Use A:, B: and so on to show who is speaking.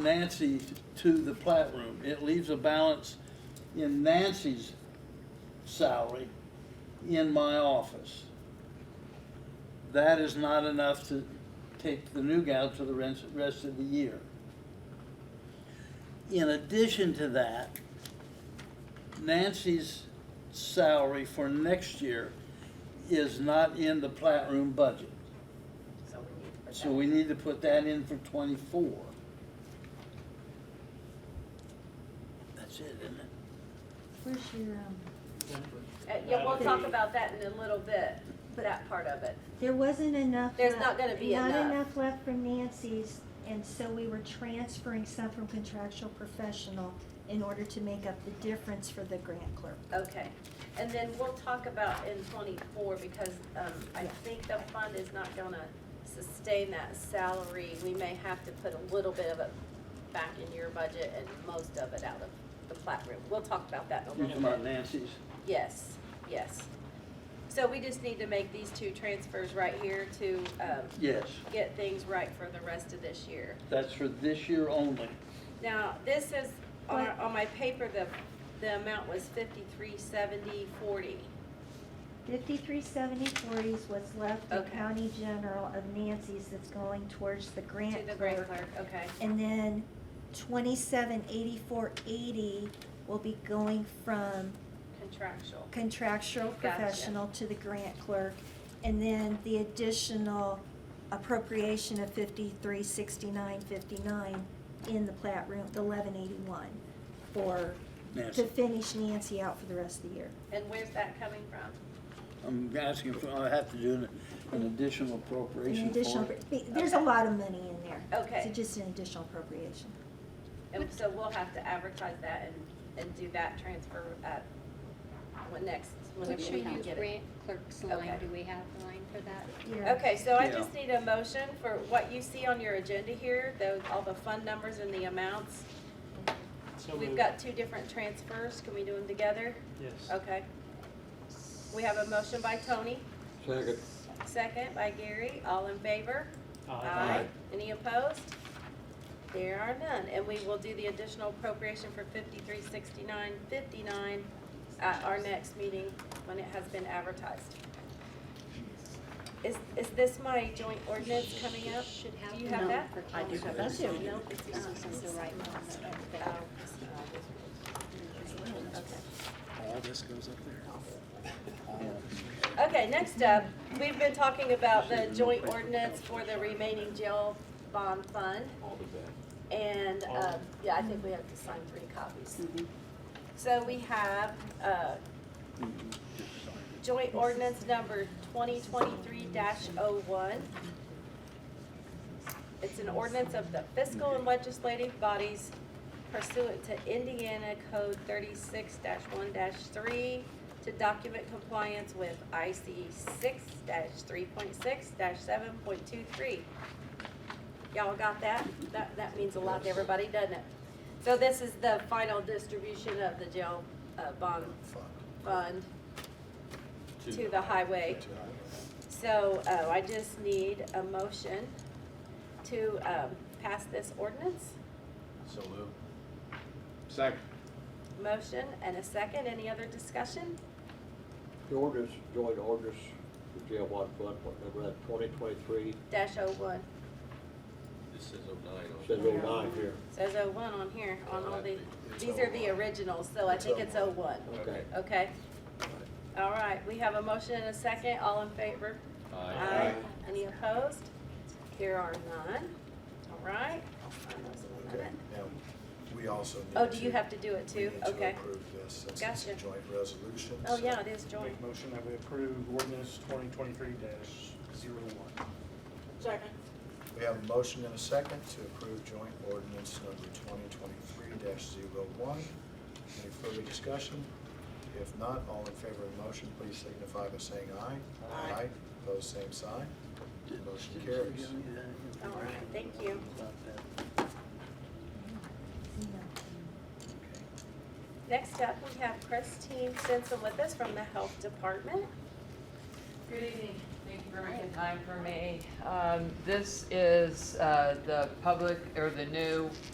A: Nancy to the plat room. It leaves a balance in Nancy's salary in my office. That is not enough to take the new gal to the rest, rest of the year. In addition to that, Nancy's salary for next year is not in the plat room budget.
B: So we need to put
A: So
B: that-
A: we need to put that in for twenty-four. That's it, isn't it?
C: Where's your, um,
B: Uh, Yeah, we'll talk about that in a little bit, that part of it.
C: there wasn't enough.
B: There's
C: left-
B: not gonna be
C: Not
B: enough.
C: enough left from Nancy's, and so we were transferring some from contractual professional in order to make up the difference for the grant clerk.
B: Okay. And then we'll talk about in twenty-four, because, um, I think the fund is not gonna sustain that salary. We may have to put a little bit of it back in your budget and most of it out of the plat room. We'll talk about that in a
A: You talking
B: little bit.
A: about Nancy's?
B: Yes, yes. So we just need to make these two transfers right here to um,
A: Yes,
B: get things right for the rest of this year.
A: that's for this year only.
B: Now, this is, on,
C: What?
B: on my paper, the, the amount was fifty-three seventy forty.
C: Fifty-three seventy forty is what's left of
B: Okay.
C: county general of Nancy's that's going towards the
B: To
C: grant
B: the grant
C: clerk.
B: clerk, okay,
C: And then twenty-seven eighty-four eighty will be going from
B: contractual.
C: contractual
B: Gotcha.
C: professional to the grant clerk. And then the additional appropriation of fifty-three sixty-nine fifty-nine in the plat room, the eleven eighty-one. For, to
A: Nancy,
C: finish Nancy out for the rest of the year.
B: And where's that coming from?
A: I'm asking for, I have to do an, an additional
C: An
A: appropriation
C: additional,
A: for it.
C: there's a lot of money in there.
B: Okay.
C: So just an additional appropriation.
B: And so we'll have to advertise that and, and do that transfer at, when next, whenever
D: Which
B: we can
D: you
B: get it.
D: grant clerk's
B: Okay.
D: line, do we have a line for that?
C: Yeah.
B: Okay, so I
A: Yeah.
B: just need a motion for what you see on your agenda here, those, all the fund numbers and the amounts.
E: So
B: We've
E: moved.
B: got two different transfers, can we do them together?
E: Yes.
B: Okay. We have a motion by Tony,
F: Second.
B: second by Gary, all in favor? Uh,
E: Aye.
B: Any opposed? There are none, and we will do the additional appropriation for fifty-three sixty-nine fifty-nine at our next meeting when it has been advertised. Is, is this my joint ordinance coming up?
D: Should have.
B: Do you have that?
D: I do have that
B: too.
D: No, it's not, it's the right one, but everything.
B: Oh,
G: all this goes up there.
B: Okay, next up, we've been talking about the joint ordinance for the remaining jail bond fund. And, uh, yeah, I think we have to sign three copies. So we have, uh, joint ordinance number twenty twenty-three oh one It's an ordinance of the fiscal and legislative bodies pursuant to Indiana Code thirty-six one three to document compliance with IC six three point six seven point two three. Y'all got that? That, that means a lot to everybody, doesn't it? So this is the final distribution of the jail, uh, bond fund to the highway. So, uh, I just need a motion to, um, pass this ordinance.
F: So moved. Second.
B: Motion and a second. Any other discussion?
H: The orders, joint orders, the jail bond fund, what number that, uh, twenty twenty-three,
B: Dash oh one.
F: This says oh nine.
H: says oh nine here.
B: Says oh one on here, on all the, these are the originals, so I think it's oh one.
H: Okay.
B: Okay? All right, we have a motion and a second. All in favor? Aye. Any opposed? Here are none. All right. I'll sign those in a
I: Okay,
B: minute.
I: now, we also need
B: Oh, do you
I: to-
B: have to do it
I: we
B: too?
I: need to
B: Okay.
I: approve this since it's a
B: Gotcha.
I: joint resolution.
B: Oh,
I: so-
B: yeah, it is joint.
E: Make a motion that we approve ordinance twenty twenty-three dash zero one.
I: We have a motion and a second to approve joint ordinance number twenty twenty-three one. Any further discussion? If not, all in favor of the motion, please signify by saying aye.
B: Aye.
I: Opposed, same sign. Motion carries.
B: All right, thank you. Next up, we have Christine Stinson with us from the Health Department.
J: Good evening. Thank you for making time for me. Um, This is uh, the public, or the new